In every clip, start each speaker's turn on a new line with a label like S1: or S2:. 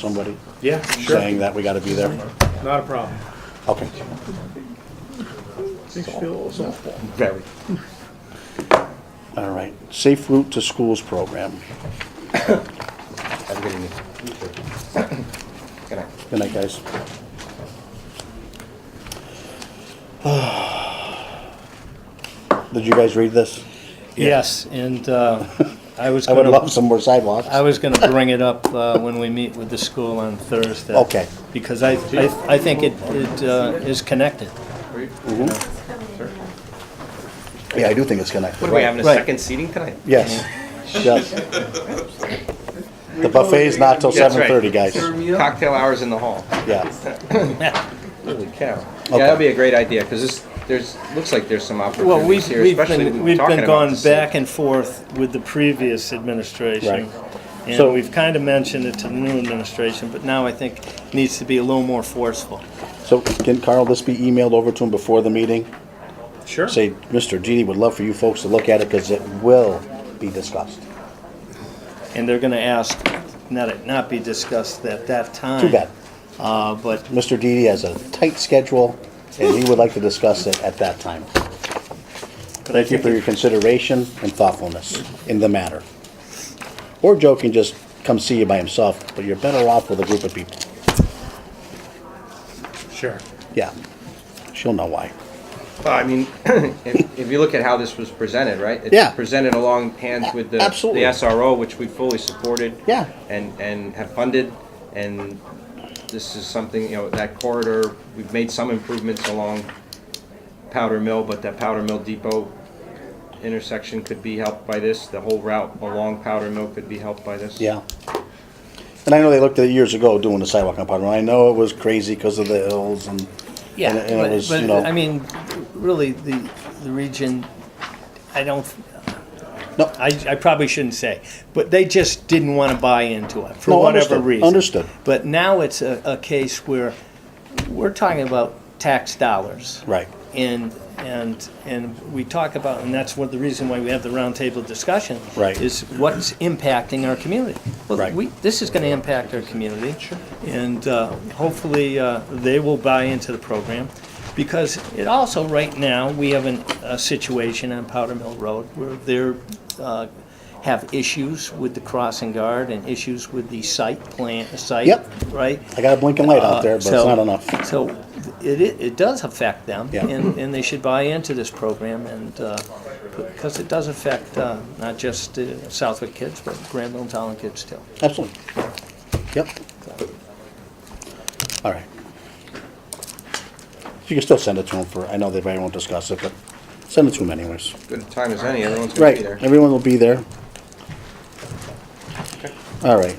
S1: somebody
S2: Yeah,
S1: saying that we gotta be there?
S2: Not a problem.
S1: Okay,
S2: Makes you feel a little awful.
S1: very. All right, Safe Route to Schools Program.
S3: Have a good evening. Good night.
S1: Good night, guys. Did you guys read this?
S4: Yes, and uh, I was
S1: I would
S4: gonna,
S1: love some more sidewalks.
S4: I was gonna bring it up uh, when we meet with the school on Thursday.
S1: Okay.
S4: Because I, I I think it it uh, is connected.
S1: Yeah, I do think it's connected.
S3: What are we having a
S4: Right.
S3: second seating tonight?
S1: Yes, yes. The buffet's not till
S3: That's right.
S1: seven thirty, guys.
S3: Cocktail hours in the hall.
S1: Yeah,
S3: Holy cow.
S1: Okay.
S3: Yeah, that'd be a great idea because this there's looks like there's some
S4: Well,
S3: opportunities
S4: we've,
S3: here,
S4: we've
S3: especially
S4: been,
S3: we
S4: we've
S3: talking
S4: been
S3: about
S4: going
S3: this.
S4: back and forth with the previous administration.
S1: Right. So-
S4: And we've kind of mentioned it to the new administration, but now I think it needs to be a little more forceful.
S1: so can Carl, this be emailed over to him before the meeting?
S2: Sure.
S1: Say, Mr. Genie would love for you folks to look at it because it will be discussed.
S4: And they're gonna ask, not, it not be discussed at that time.
S1: Too bad.
S4: Uh, But
S1: Mr. Didi has a tight schedule, and he would like to discuss it at that time. Thank you for your consideration and thoughtfulness in the matter. Or Joe can just come see you by himself, but you're better off with a group of people.
S2: Sure.
S1: Yeah, she'll know why.
S3: Well, I mean, if, if you look at how this was presented, right? It's
S1: Yeah.
S3: Presented along hands with the
S1: Absolutely.
S3: the SRO, which we fully supported.
S1: Yeah.
S3: And and have funded, and this is something you know that corridor. We've made some improvements along Powder Mill, but that Powder Mill Depot intersection could be helped by this. The whole route along Powder Mill could be helped by this.
S1: Yeah. And I know they looked at it years ago doing the sidewalk on Potter Run. I know it was crazy because of the hills and,
S4: Yeah,
S1: and it- and it
S4: but-
S1: was,
S4: but,
S1: you know.
S4: I mean, really, the, the region, I don't,
S1: No.
S4: I, I probably shouldn't say, but they just didn't want to buy into it for
S1: No,
S4: whatever
S1: understood,
S4: reason.
S1: understood.
S4: But now it's a, a case where we're talking about tax dollars.
S1: Right.
S4: And, and, and we talk about, and that's what the reason why we have the roundtable discussion.
S1: Right.
S4: Is what's impacting our community.
S1: Right.
S4: Well, we, this is going to impact our community. Sure. And uh, hopefully, uh, they will buy into the program. Because it also, right now, we have an, a situation on Powder Mill Road where they're, uh, have issues with the crossing guard and issues with the site plan, site.
S1: Yep.
S4: Right?
S1: I got a blinking light out there, but it's
S4: Uh, So-
S1: not enough.
S4: So it, it it does affect them,
S1: Yeah.
S4: and, and they should buy into this program, and, uh, because it does affect uh, not just uh, Southwick kids, but Granville and Talon kids too.
S1: Absolutely. Yep. All right. You can still send it to them for, I know they probably won't discuss it, but send it to them anyways.
S3: Good time as any. Everyone's gonna
S1: Right,
S3: be there.
S1: everyone will be there. All right.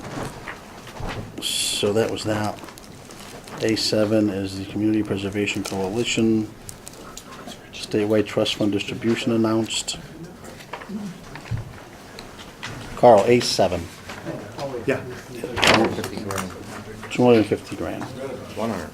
S1: So that was that. A7 is the Community Preservation Coalition. Statewide Trust Fund Distribution announced. Carl, A7,
S2: Yeah.
S3: 50 grand.
S1: 250 grand.
S3: 100.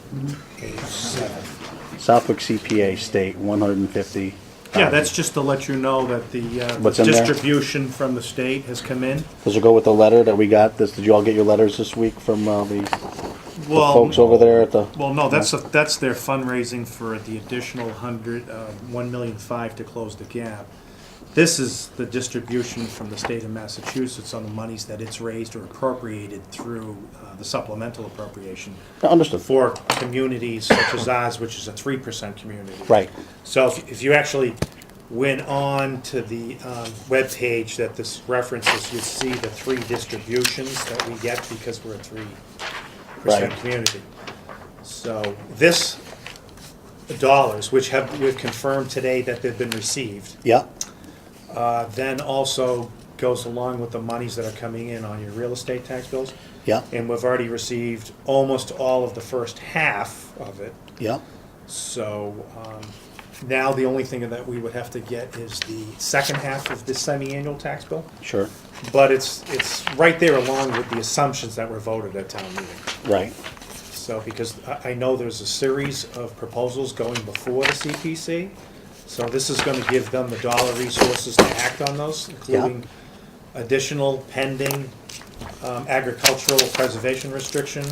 S1: Southwick CPA State, 150.
S2: Yeah, that's just to let you know that the uh,
S1: What's in there?
S2: distribution from the state has come in.
S1: Does it go with the letter that we got? This- Did you all get your letters this week from uh, the the
S2: Well,
S1: folks over there at the?
S2: well, no, that's, a- that's their fundraising for the additional hundred, uh, one million five to close the gap. This is the distribution from the state of Massachusetts on the monies that it's raised or appropriated through uh, the supplemental appropriation
S1: Understood.
S2: for communities such as ours, which is a three percent community.
S1: Right.
S2: So if, if you actually went on to the um, webpage that this references, you'd see the three distributions that we get because we're a three percent
S1: Right.
S2: community. So this dollars, which have, we've confirmed today that they've been received,
S1: Yeah,
S2: uh, then also goes along with the monies that are coming in on your real estate tax bills.
S1: yeah,
S2: And we've already received almost all of the first half of it.
S1: yeah.
S2: So um, now the only thing that we would have to get is the second half of this semi-annual tax bill.
S1: Sure.
S2: But it's, it's right there along with the assumptions that were voted at town meeting.
S1: Right.
S2: So, because I, I know there's a series of proposals going before the CPC. So this is gonna give them the dollar resources to act on those, including additional pending um, agricultural preservation restriction